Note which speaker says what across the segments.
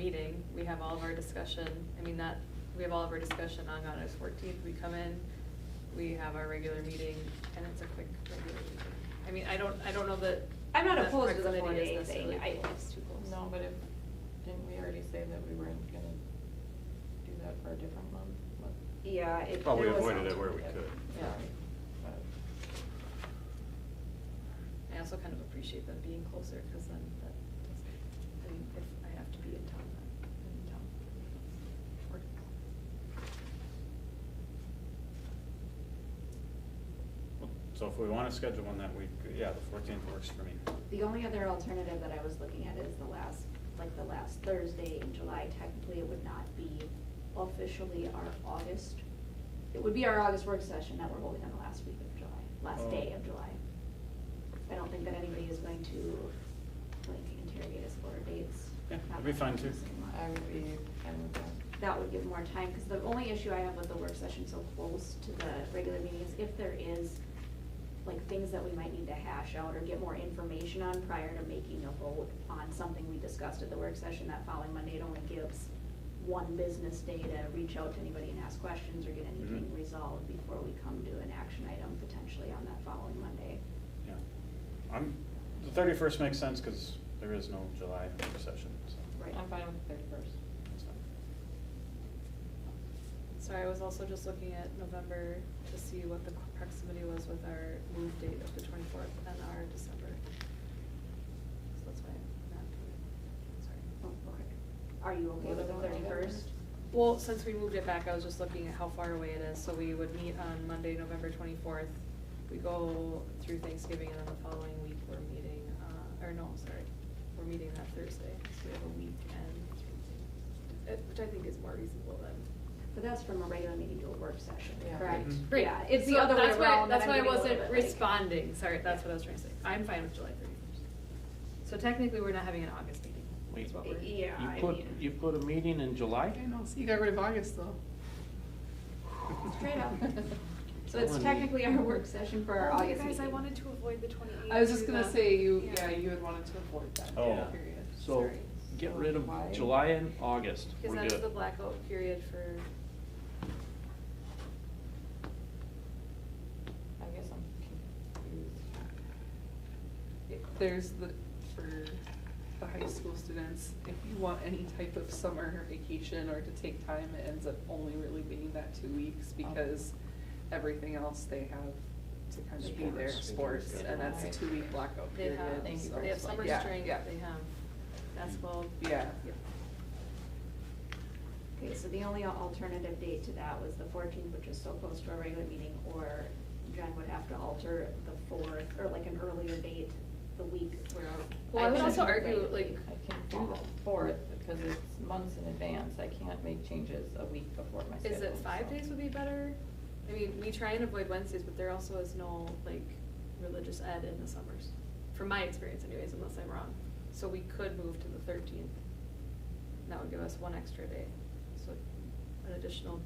Speaker 1: meeting, we have all of our discussion, I mean, that, we have all of our discussion on August fourteenth, we come in, we have our regular meeting, and it's a quick regular meeting. I mean, I don't, I don't know that.
Speaker 2: I'm not
Speaker 1: that
Speaker 2: opposed to the four
Speaker 1: proximity is
Speaker 2: day
Speaker 1: necessarily
Speaker 2: thing, I,
Speaker 1: cool.
Speaker 2: it's too close.
Speaker 3: No, but if, didn't we already say that we weren't gonna do that for a different month? But-
Speaker 2: Yeah, it,
Speaker 4: Well, we
Speaker 2: there was
Speaker 4: avoided it
Speaker 2: some-
Speaker 4: where we could.
Speaker 3: Yeah, but,
Speaker 1: I also kind of appreciate them being closer, because then that, doesn't- I mean, if I have to be in town, I'm in town. Or-
Speaker 4: So if we wanna schedule one that week, yeah, the fourteenth works for me.
Speaker 5: The only other alternative that I was looking at is the last, like the last Thursday in July, technically it would not be officially our August. It would be our August work session that we're holding on the last week of July, last day of
Speaker 4: Oh.
Speaker 5: July. I don't think that anybody is going to like interrogate us for dates.
Speaker 4: Yeah,
Speaker 5: Not
Speaker 4: that'd be
Speaker 5: that
Speaker 4: fine, too.
Speaker 5: interesting.
Speaker 3: I would be fine with that.
Speaker 5: That would give more time, because the only issue I have with the work session so close to the regular meeting is if there is like things that we might need to hash out or get more information on prior to making a vote on something we discussed at the work session that following Monday, it only gives one business day to reach out to anybody and ask questions or get anything
Speaker 4: Mhm.
Speaker 5: resolved before we come to an action item potentially on that following Monday.
Speaker 4: Yeah. I'm, the thirty-first makes sense, cause there is no July session, so.
Speaker 5: Right.
Speaker 3: I'm fine with the thirty-first.
Speaker 4: that's fine.
Speaker 1: Sorry, I was also just looking at November to see what the proximity was with our move date of the twenty-fourth and our December. So that's why I'm not doing it,
Speaker 5: Oh,
Speaker 1: sorry.
Speaker 5: okay. Are you okay with the thirty-first?
Speaker 1: Well, since we moved it back, I was just looking at how far away it is, so we would meet on Monday, November twenty-fourth. We go through Thanksgiving and then the following week we're meeting, uh, or no, sorry, we're meeting that Thursday, so we have a week and, uh, which I think is more reasonable than
Speaker 5: But that's from a regular meeting to a work session,
Speaker 3: Yeah.
Speaker 5: correct?
Speaker 4: Mhm.
Speaker 1: Great.
Speaker 5: Yeah, it's the
Speaker 1: So
Speaker 5: other way
Speaker 1: that's why-
Speaker 5: around. that
Speaker 1: That's
Speaker 5: I'm
Speaker 1: why I
Speaker 5: getting a little
Speaker 1: wasn't
Speaker 5: bit like-
Speaker 1: responding, sorry, that's what I was trying to say. I'm fine with July thirty-first. So technically, we're not having an August meeting, is
Speaker 6: Wait.
Speaker 1: what we're.
Speaker 2: Yeah,
Speaker 6: You
Speaker 2: I
Speaker 6: put,
Speaker 2: mean-
Speaker 6: you put a meeting in July? I know.
Speaker 3: You got rid of August though.
Speaker 5: Straight up. So
Speaker 6: Tell
Speaker 5: it's
Speaker 6: me.
Speaker 5: technically our work session for our August meeting.
Speaker 1: to avoid the twenty-eighth.
Speaker 3: I was just gonna say, you, yeah, you had wanted to avoid that
Speaker 4: Oh.
Speaker 3: period.
Speaker 6: So
Speaker 1: Sorry.
Speaker 6: get rid of
Speaker 3: Why?
Speaker 6: July and August.
Speaker 1: Cause
Speaker 6: We're
Speaker 1: that's the
Speaker 6: good.
Speaker 1: blackout period for,
Speaker 3: I guess I'm confused.
Speaker 7: if there's the, for the high school students, if you want any type of summer vacation or to take time, it ends up only really being that two weeks
Speaker 1: Oh.
Speaker 7: because everything else they have to kind of be there,
Speaker 6: Sports.
Speaker 7: sports, and that's a two-week blackout
Speaker 1: they
Speaker 7: period.
Speaker 1: have,
Speaker 3: Thank you
Speaker 7: so-
Speaker 3: very
Speaker 1: they have
Speaker 3: much.
Speaker 1: summer
Speaker 7: Yeah,
Speaker 1: strength, they
Speaker 7: yeah.
Speaker 1: have basketball.
Speaker 7: Yeah.
Speaker 1: Yep.
Speaker 5: Okay, so the only alternative date to that was the fourteenth, which is so close to our regular meeting, or Jen would have to alter the fourth, or like an earlier date, the week where.
Speaker 1: Well, I would
Speaker 5: can
Speaker 1: also
Speaker 5: do the
Speaker 1: argue,
Speaker 5: regular
Speaker 1: like-
Speaker 5: meeting.
Speaker 3: I can do the fourth because it's months in advance. I can't make changes a week before my schedule.
Speaker 1: Is it five
Speaker 3: so.
Speaker 1: days would be better? I mean, we try and avoid Wednesdays, but there also is no like religious ed in the summers, from my experience anyways, unless I'm wrong. So we could move to the thirteenth. That would give us one extra day, so an additional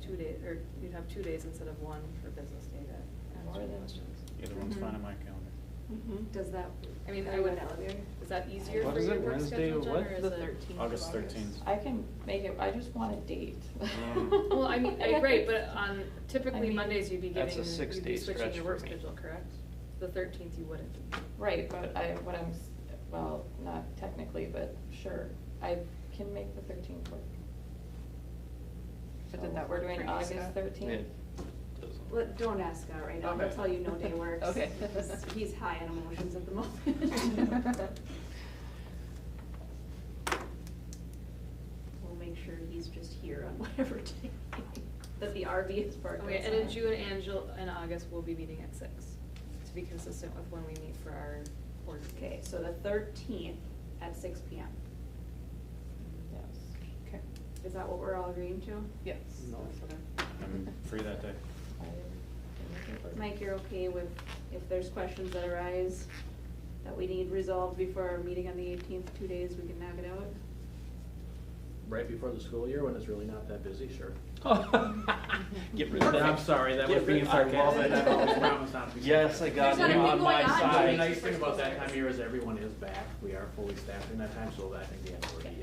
Speaker 1: two days, or you'd have two days instead of one for business day to
Speaker 3: Or
Speaker 1: answer
Speaker 3: the-
Speaker 1: questions. Mm-hmm.
Speaker 4: Either one's fine
Speaker 5: Mhm.
Speaker 4: on my calendar.
Speaker 7: Mm-hmm.
Speaker 3: Mhm.
Speaker 5: Does that?
Speaker 1: I mean,
Speaker 5: are
Speaker 1: I
Speaker 5: you
Speaker 1: would,
Speaker 5: available?
Speaker 1: is that easier
Speaker 6: What
Speaker 1: for
Speaker 6: is
Speaker 1: your
Speaker 6: it,
Speaker 1: work
Speaker 6: Wednesday
Speaker 1: schedule,
Speaker 6: of
Speaker 1: Jen,
Speaker 6: what?
Speaker 1: or is it?
Speaker 7: The 13th of
Speaker 4: August 13th.
Speaker 3: I can make it, I just want a date.
Speaker 6: Mm.
Speaker 1: Well, I mean, I- right, but on,
Speaker 3: I
Speaker 1: typically
Speaker 3: mean,
Speaker 1: Mondays you'd be
Speaker 6: that's
Speaker 1: getting,
Speaker 6: a
Speaker 1: you'd
Speaker 6: six-day
Speaker 1: be switching
Speaker 6: stretch
Speaker 1: your work
Speaker 6: for me.
Speaker 1: schedule, correct? The thirteenth you wouldn't.
Speaker 3: Right, but I, what I'm, s- well, not technically, but sure, I can make the thirteenth work.
Speaker 7: But
Speaker 3: So
Speaker 7: did that
Speaker 3: we're
Speaker 7: work
Speaker 3: doing
Speaker 7: for you,
Speaker 3: August
Speaker 7: Scott?
Speaker 3: thirteenth?
Speaker 6: It doesn't-
Speaker 5: Let, don't ask Scott right now, he'll
Speaker 3: Okay.
Speaker 5: tell you no day works.
Speaker 3: Okay.
Speaker 5: He's- He's high on emotions at the moment. We'll make sure he's just here on whatever day that the RV is parked
Speaker 1: Okay, and in
Speaker 5: outside.
Speaker 1: June, Angel, and August, we'll be meeting at six, to be consistent with when we meet for our board meetings.
Speaker 5: Okay, so the thirteenth at six P M.
Speaker 3: Yes.
Speaker 7: Okay,
Speaker 5: Is that what we're all agreeing to?
Speaker 7: yes.
Speaker 6: No.
Speaker 7: that's what I-
Speaker 4: I'm free that day.
Speaker 3: I can make it work.
Speaker 5: Mike, you're okay with if there's questions that arise that we need resolved before our meeting on the eighteenth, two days, we can knock it out?
Speaker 8: Right before the school year, when it's really not that busy, sure.
Speaker 6: Get rid of that.
Speaker 8: I'm sorry, that was
Speaker 6: Get
Speaker 8: being
Speaker 6: rid- I love
Speaker 8: sarcastic.
Speaker 6: it.
Speaker 8: I always promise not to be
Speaker 6: Yes, I
Speaker 8: sarcastic.
Speaker 6: got
Speaker 5: There's not
Speaker 6: you
Speaker 5: a
Speaker 6: on
Speaker 5: thing
Speaker 6: my
Speaker 5: going on.
Speaker 8: I mean, the
Speaker 6: side.
Speaker 8: nice thing about that time of year is everyone is back. We are fully staffed, and that time, so I think the end already